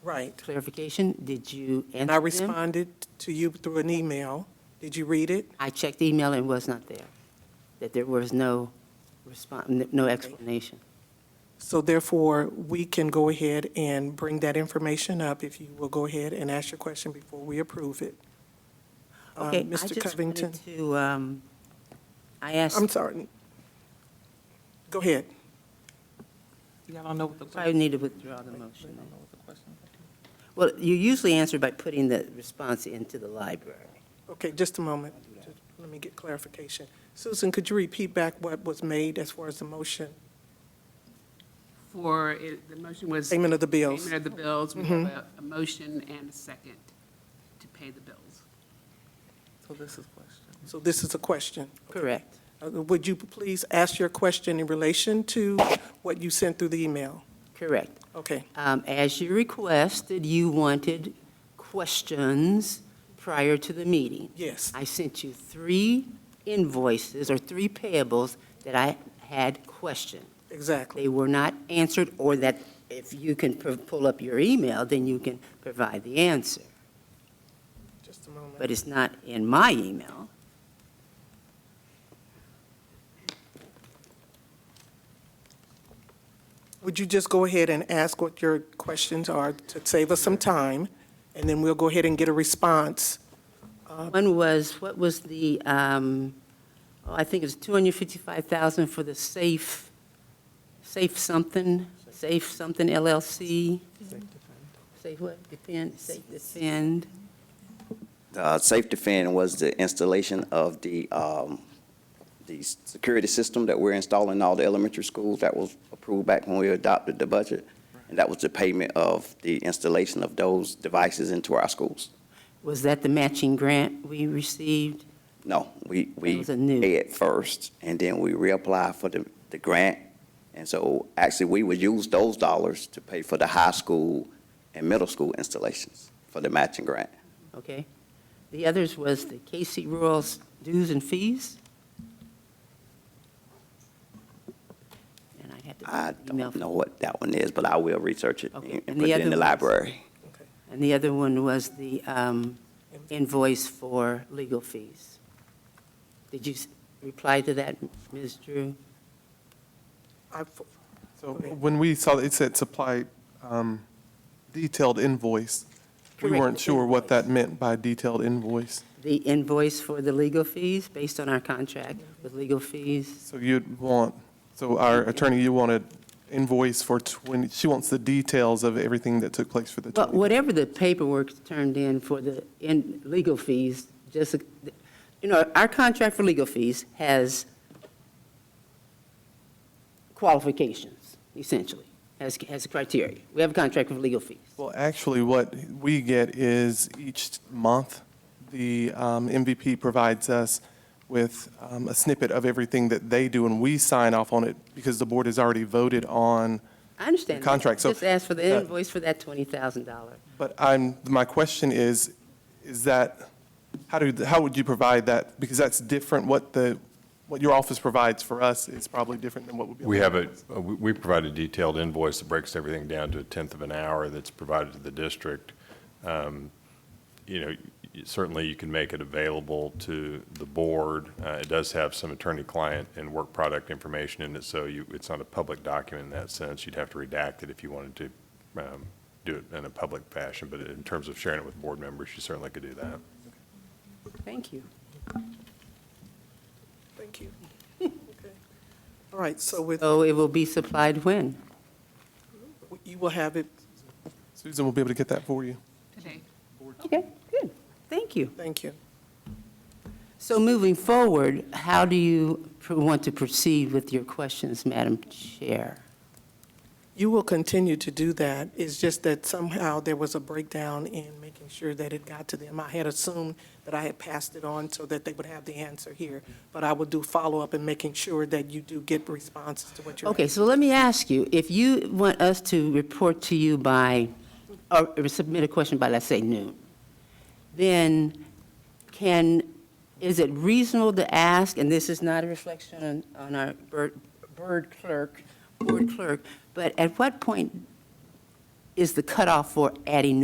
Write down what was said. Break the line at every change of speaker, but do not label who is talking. Right.
clarification, did you answer
And I
them?
responded to you through an email. Did you read it?
I checked the email and it was not there, that there was no response, no explanation.
Um, So therefore, we can go ahead and bring that information up if you will go ahead and ask your question before we approve it. Um,
Okay, I
Mr.
just wanted
Covington,
to, um, I
I'm
asked,
sorry. Go ahead.
Y'all don't know what the
I
question.
need to withdraw the motion.
don't know what the question is.
Well, you usually answer by putting the response into the library.
Okay, just a moment. Just Let me get clarification. Susan, could you repeat back what was made as far as the motion,
For, it- the motion was.
payment of the bills? Mm-hmm.
Payment of the bills. We have a, a motion and a second to pay the bills.
So this is question.
So this is a question.
Correct.
Uh, Would you please ask your question in relation to what you sent through the email?
Correct.
Okay,
Um, As you requested, you wanted questions prior to the meeting.
yes,
I sent you three invoices or three payables that I had questioned.
exactly.
They were not answered, or that if you can pu- pull up your email, then you can provide the answer.
Just a moment.
But it's not in my email.
Would you just go ahead and ask what your questions are to save us some time? And then we'll go ahead and get a response.
One was, what was the, um, oh, I think it was 255,000 for the Safe, Safe something, Safe something LLC? Safe what? Defend, Safe Defend.
Uh, Safe Defend was the installation of the, um, the s- security system that we're installing in all the elementary schools. That was approved back when we adopted the budget. And that was the payment of the installation of those devices into our schools.
Was that the matching grant we received?
No, we,
That
we
was a new-
pay it first, and then we reapply for the, the grant. And so actually, we would use those dollars to pay for the high school and middle school installations for the matching grant.
Okay. The others was the KC Rural's dues and fees? And I had to.
I
email-
don't know what that one is, but I will research it
Okay,
and
and
and put
the
it in
other
the
ones?
library.
And the other one was the um, invoice for legal fees. Did you s- reply to that, Ms. Drew?
I-
So
Okay.
when we saw, it said supply um, detailed invoice. We
Correct,
weren't sure what
invoice.
that meant by detailed invoice.
The invoice for the legal fees, based on our contract with legal fees?
So you'd want, so our attorney, you wanted invoice for 20, she wants the details of everything that took place for the
But
20.
whatever the paperwork turned in for the, in, legal fees, just, you know, our contract for legal fees has qualifications, essentially, has, has criteria. We have a contract for legal fees.
Well, actually, what we get is each month, the um, MVP provides us with um, a snippet of everything that they do, and we sign off on it because the board has already voted on
I understand.
The
that.
contract, so-
Just ask for the
that-
invoice for that $20,000.
But I'm, my question is, is that, how do, how would you provide that? Because that's different, what the, what your office provides for us is probably different than what would be.
We have a, uh, we we provide a detailed invoice that breaks everything down to a tenth of an hour that's provided to the district. Um, You know, y- certainly you can make it available to the board. Uh, It does have some attorney-client and work product information in it, so you, it's not a public document in that sense. You'd have to redact it if you wanted to um, do it in a public fashion, but in terms of sharing it with board members, you certainly could do that.
Thank you.
Thank you. Okay. All right, so with,
So it will be supplied when?
you will have it,
Susan will be able to get that for you.
Today.
Okay, good. Thank you.
thank you.
So moving forward, how do you pr- want to proceed with your questions, Madam Chair?
You will continue to do that. It's just that somehow there was a breakdown in making sure that it got to them. I had assumed that I had passed it on so that they would have the answer here. But I will do follow-up in making sure that you do get responses to what you're.
Okay, so let me ask you, if you want us to report to you by, or submit a question by, let's say noon, then can, is it reasonable to ask, and this is not a reflection on, on our bird, bird clerk, board clerk, but at what point is the cutoff for adding new